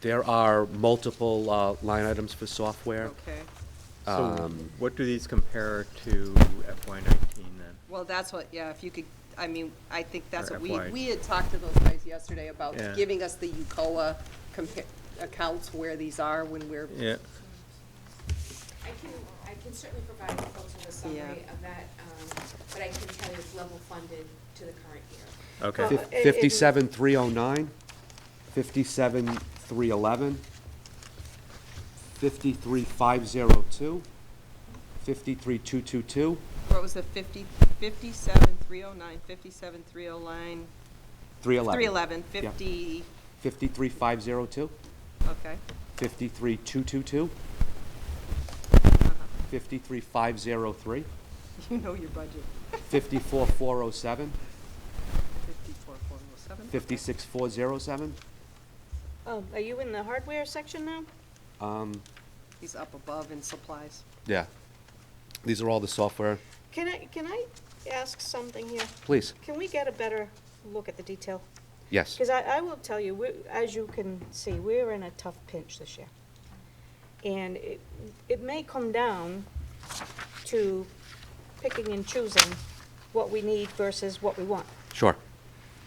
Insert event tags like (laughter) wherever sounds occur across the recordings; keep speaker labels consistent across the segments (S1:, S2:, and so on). S1: There are multiple uh, line items for software.
S2: Okay,
S3: So
S1: Um,
S3: what do these compare to FY nineteen then?
S2: well, that's what, yeah, if you could, I mean, I think that's
S3: Or
S2: what we,
S3: FY.
S2: we had talked to those guys yesterday about
S3: Yeah.
S2: giving us the UCOA compa- accounts where these are when we're,
S3: Yeah,
S4: I can, I can certainly provide a full summary
S2: Yeah.
S4: of that, um, but I can tell you it's level funded to the current year.
S3: okay.
S1: Fif- 57,309, 57,311, 53,502, 53,222,
S2: what was the fifty, fifty-seven, three oh nine, fifty-seven, three oh nine, three
S1: 311.
S2: eleven, fifty,
S1: 53,502,
S2: okay. (laughs)
S1: 53,222,
S2: uh-huh.
S1: 53,503,
S2: You know your budget,
S1: 54,407,
S2: fifty-four, four oh seven.
S1: 56,407.
S5: Oh, are you in the hardware section now?
S1: um,
S2: He's up above in supplies.
S1: Yeah. These are all the software.
S5: Can I, can I ask something here?
S1: Please,
S5: Can we get a better look at the detail?
S1: yes.
S5: Because I, I will tell you, we- as you can see, we're in a tough pinch this year. And it, it may come down to picking and choosing what we need versus what we want.
S1: Sure.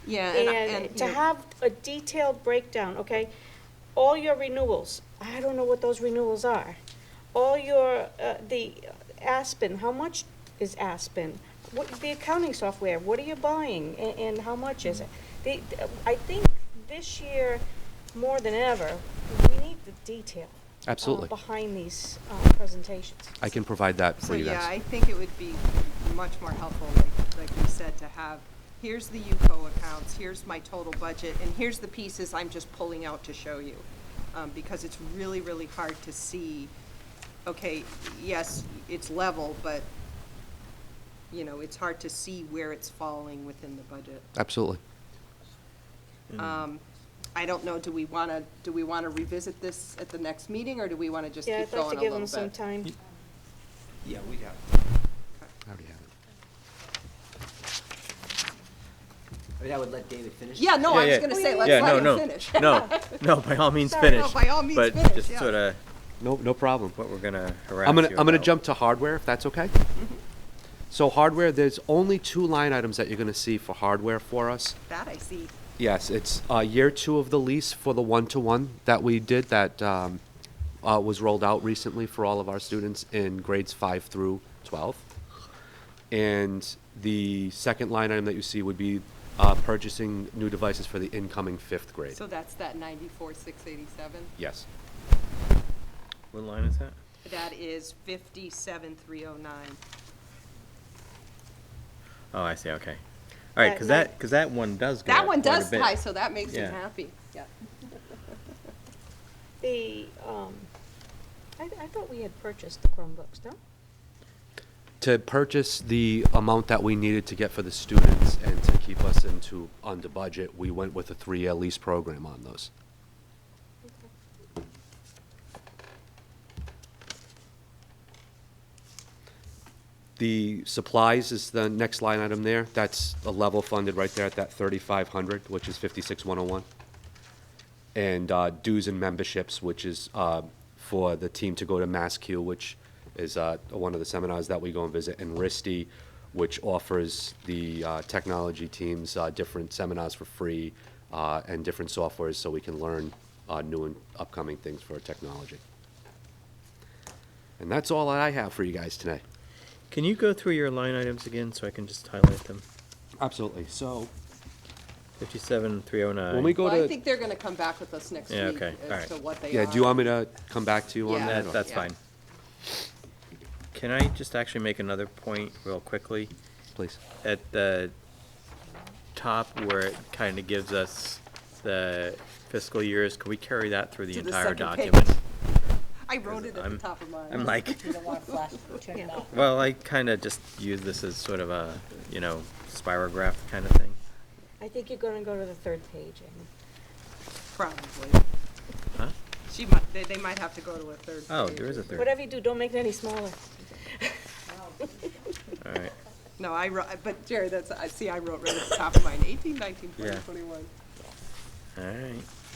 S2: Yeah, and, I-
S5: And
S2: and, you
S5: to
S2: know-
S5: have a detailed breakdown, okay? All your renewals, I don't know what those renewals are. All your, uh, the Aspen, how much is Aspen? What, the accounting software, what are you buying and, and how much is it? The, I think this year, more than ever, we need the detail. uh,
S1: Absolutely.
S5: Behind these, uh, presentations.
S1: I can provide that
S2: So,
S1: for you guys.
S2: yeah, I think it would be much more helpful, like, like we said, to have, here's the UCO accounts, here's my total budget, and here's the pieces I'm just pulling out to show you. Um, because it's really, really hard to see, okay, yes, it's level, but, you know, it's hard to see where it's falling within the budget.
S1: Absolutely.
S2: Um, I don't know, do we wanna, do we wanna revisit this at the next meeting, or do we wanna just
S5: Yeah,
S2: keep
S5: I'd like
S2: going
S5: to
S2: a
S5: give
S2: little
S5: them some
S2: bit?
S5: time.
S1: Yeah, we have. I already have it.
S6: I mean, I would let David finish.
S2: Yeah, no, I
S3: Yeah,
S2: was
S3: yeah.
S2: gonna say, let's
S3: Yeah,
S2: let
S3: no,
S2: him
S3: no,
S2: finish.
S3: No, no, by
S2: (laughs)
S3: all means,
S5: Sorry,
S3: finish.
S2: no, by all means finish,
S3: But just
S2: yeah.
S3: sort of
S1: No, no problem.
S3: what we're gonna harass you
S1: I'm gonna, I'm gonna
S3: about.
S1: jump to hardware, if that's (laughs) okay? So hardware, there's only two line items that you're gonna see for hardware for us.
S2: That I see.
S1: Yes, it's, uh, year two of the lease for the one-to-one that we did that, um, uh, was rolled out recently for all of our students in grades five through twelve. And the second line item that you see would be, uh, purchasing new devices for the incoming fifth grade.
S2: So that's that ninety-four, six eighty-seven?
S1: Yes.
S3: What line is that?
S2: That is fifty-seven, three oh nine.
S3: Oh, I see, okay. All right,
S5: That
S3: because
S5: night-
S3: that, because that one does go
S2: That
S3: up
S2: one
S3: quite a
S2: does
S3: bit.
S2: tie, so that makes me
S3: Yeah.
S2: happy. Yeah.
S5: The, um, I, I thought we had purchased the Chromebooks, no?
S1: to purchase the amount that we needed to get for the students and to keep us into, under budget, we went with a three-year lease program on those. The supplies is the next line item there. That's a level funded right there at that thirty-five hundred, which is fifty-six one oh one. And uh, dues and memberships, which is uh, for the team to go to MassQ, which is uh, one of the seminars that we go and visit, and RISD, which offers the uh, technology teams uh, different seminars for free uh, and different softwares so we can learn uh, new and upcoming things for technology. And that's all that I have for you guys today.
S3: Can you go through your line items again so I can just highlight them?
S1: Absolutely. So
S3: Fifty-seven, three oh nine.
S1: when we go
S2: Well, I
S1: to,
S2: think they're gonna come back with us next
S3: Yeah,
S2: week
S3: okay.
S2: as
S3: All right.
S2: to what they are.
S1: yeah, do you want me to come back to you on
S2: Yeah.
S1: that?
S3: That,
S1: or-
S3: that's
S2: Yeah.
S3: fine. Can I just actually make another point real quickly?
S1: Please.
S3: At the top where it kind of gives us the fiscal years, can we carry that through the
S2: To the
S3: entire
S2: second page.
S3: document?
S2: I wrote it at the
S3: I'm-
S2: top of mine. (laughs)
S3: I'm like,
S5: Yeah.
S3: well, I kind of just use this as sort of a, you know, spirograph kind of thing.
S5: I think you're gonna go to the third page, Amy.
S2: Probably.
S3: Huh?
S2: She might, they, they might have to go to a third.
S3: Oh,
S2: page.
S3: there is a third.
S5: Whatever you do, don't make it any smaller.
S3: All right.
S2: No, I wrote, but Jerry, that's, I see, I wrote right at the top of mine, eighteen, nineteen, twenty,
S3: Yeah.
S2: twenty-one.
S3: All right.